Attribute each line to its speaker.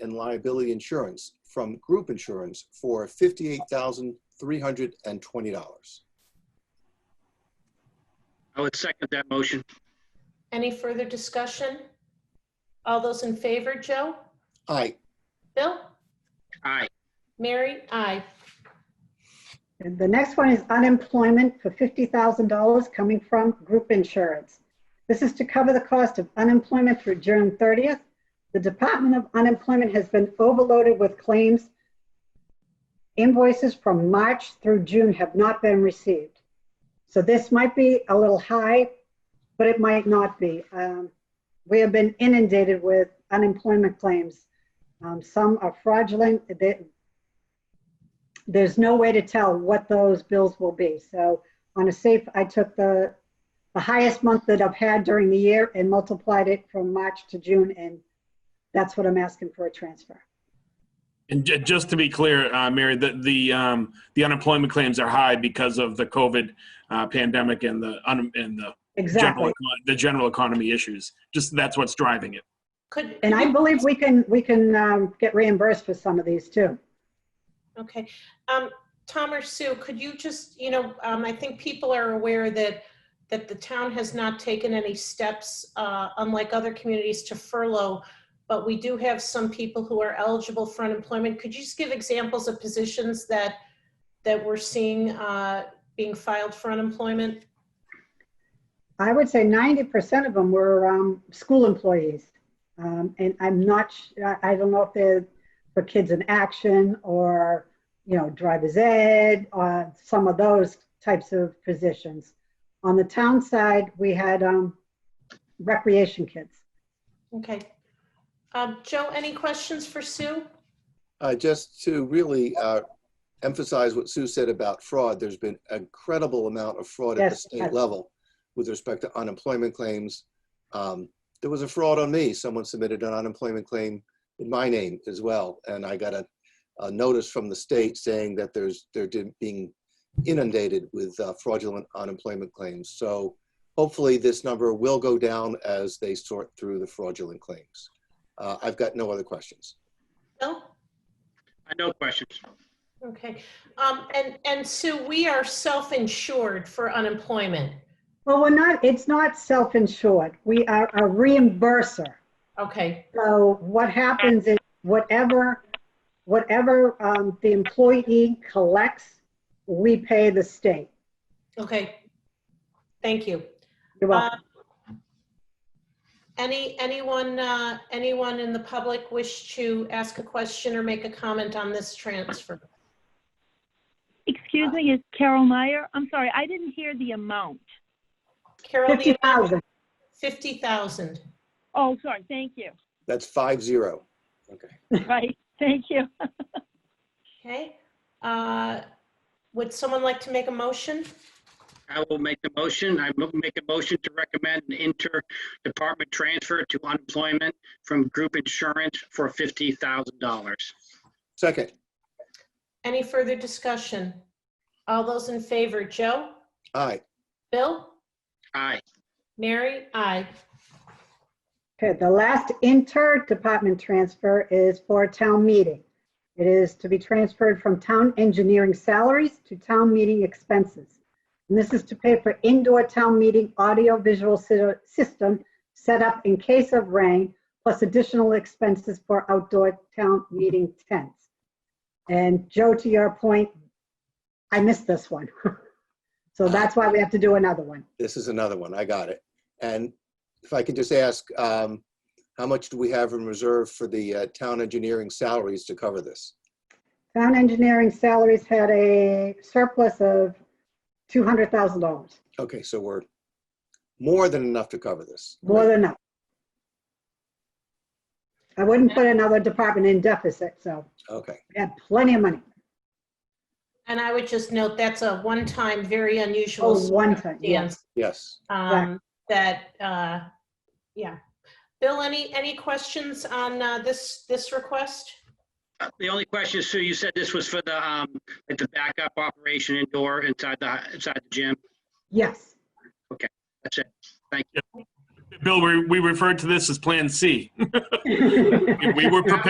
Speaker 1: and liability insurance from group insurance for $58,320.
Speaker 2: I would second that motion.
Speaker 3: Any further discussion? All those in favor, Joe?
Speaker 1: Aye,
Speaker 3: Bill?
Speaker 2: Aye.
Speaker 3: Mary? Aye.
Speaker 4: And the next one is unemployment for $50,000 coming from group insurance. This is to cover the cost of unemployment through June 30th. The Department of Unemployment has been overloaded with claims. Invoices from March through June have not been received. So this might be a little high, but it might not be. Um, We have been inundated with unemployment claims. Um, Some are fraudulent, They- there's no way to tell what those bills will be. So on a safe, I took the, the highest month that I've had during the year and multiplied it from March to June, and that's what I'm asking for a transfer.
Speaker 5: And ju- just to be clear, uh, Mary, the the, um, the unemployment claims are high because of the COVID uh, pandemic and the un- and the general
Speaker 4: Exactly.
Speaker 5: econ- the general economy issues. Just that's what's driving it.
Speaker 3: Could,
Speaker 4: And I believe we can, we can um, get reimbursed for some of these too.
Speaker 3: okay. Um, Tom or Sue, could you just, you know, um, I think people are aware that, that the town has not taken any steps, uh, unlike other communities, to furlough, but we do have some people who are eligible for unemployment. Could you just give examples of positions that, that we're seeing uh, being filed for unemployment?
Speaker 4: I would say 90% of them were um, school employees. Um, and I'm not, sh- I- I don't know if they're for kids in action or, you know, driver's ed, uh, some of those types of positions. On the town side, we had um, recreation kids.
Speaker 3: Okay. Um, Joe, any questions for Sue?
Speaker 1: Uh, just to really uh, emphasize what Sue said about fraud, there's been an incredible amount of fraud at the
Speaker 4: Yes,
Speaker 1: state
Speaker 4: yes.
Speaker 1: level with respect to unemployment claims. Um, there was a fraud on me. Someone submitted an unemployment claim in my name as well, and I got a, a notice from the state saying that there's they're di- being inundated with uh, fraudulent unemployment claims. So hopefully this number will go down as they sort through the fraudulent claims. Uh, I've got no other questions.
Speaker 3: Bill?
Speaker 2: I no questions.
Speaker 3: Okay, um, and, and Sue, we are self-insured for unemployment.
Speaker 4: Well, we're not, it's not self-insured. We are a reimburser.
Speaker 3: Okay,
Speaker 4: So what happens is whatever, whatever um, the employee collects, we pay the state.
Speaker 3: okay. Thank you.
Speaker 4: You're welcome.
Speaker 3: Um, Any, anyone, uh, anyone in the public wish to ask a question or make a comment on this transfer?
Speaker 6: Excuse me, is Carol Meyer? I'm sorry, I didn't hear the amount.
Speaker 3: Carol, the
Speaker 4: Fifty
Speaker 3: amount-
Speaker 4: thousand.
Speaker 3: 50,000.
Speaker 6: Oh, sorry, thank you.
Speaker 1: That's five zero. Okay.
Speaker 6: Right, thank you.
Speaker 3: Okay, Uh, would someone like to make a motion?
Speaker 2: I will make the motion. I will make a motion to recommend an inter-department transfer to unemployment from group insurance for $50,000.
Speaker 1: Second,
Speaker 3: Any further discussion? All those in favor, Joe?
Speaker 1: aye.
Speaker 3: Bill?
Speaker 2: Aye.
Speaker 3: Mary? Aye.
Speaker 4: Okay, the last inter-department transfer is for town meeting. It is to be transferred from town engineering salaries to town meeting expenses. And this is to pay for indoor town meeting audiovisual sy- system set up in case of rain, plus additional expenses for outdoor town meeting tents. And Joe, to your point, I missed this one. So that's why we have to do another one.
Speaker 1: This is another one. I got it. And if I could just ask, um, how much do we have in reserve for the uh, town engineering salaries to cover this?
Speaker 4: Town engineering salaries had a surplus of $200,000,
Speaker 1: Okay, so we're more than enough to cover this.
Speaker 4: more than enough. I wouldn't put another department in deficit, so
Speaker 1: Okay,
Speaker 4: we have plenty of money.
Speaker 3: And I would just note, that's a one-time, very unusual
Speaker 4: Oh, one time, yeah.
Speaker 3: circumstance,
Speaker 1: yes.
Speaker 3: um, that, uh, yeah. Bill, any, any questions on uh, this, this request?
Speaker 2: Uh, The only question is, Sue, you said this was for the, um, like the backup operation indoor inside the, inside the gym.
Speaker 4: Yes,
Speaker 2: That's it.
Speaker 5: Bill, we, we referred to this as Plan C. We were prepared.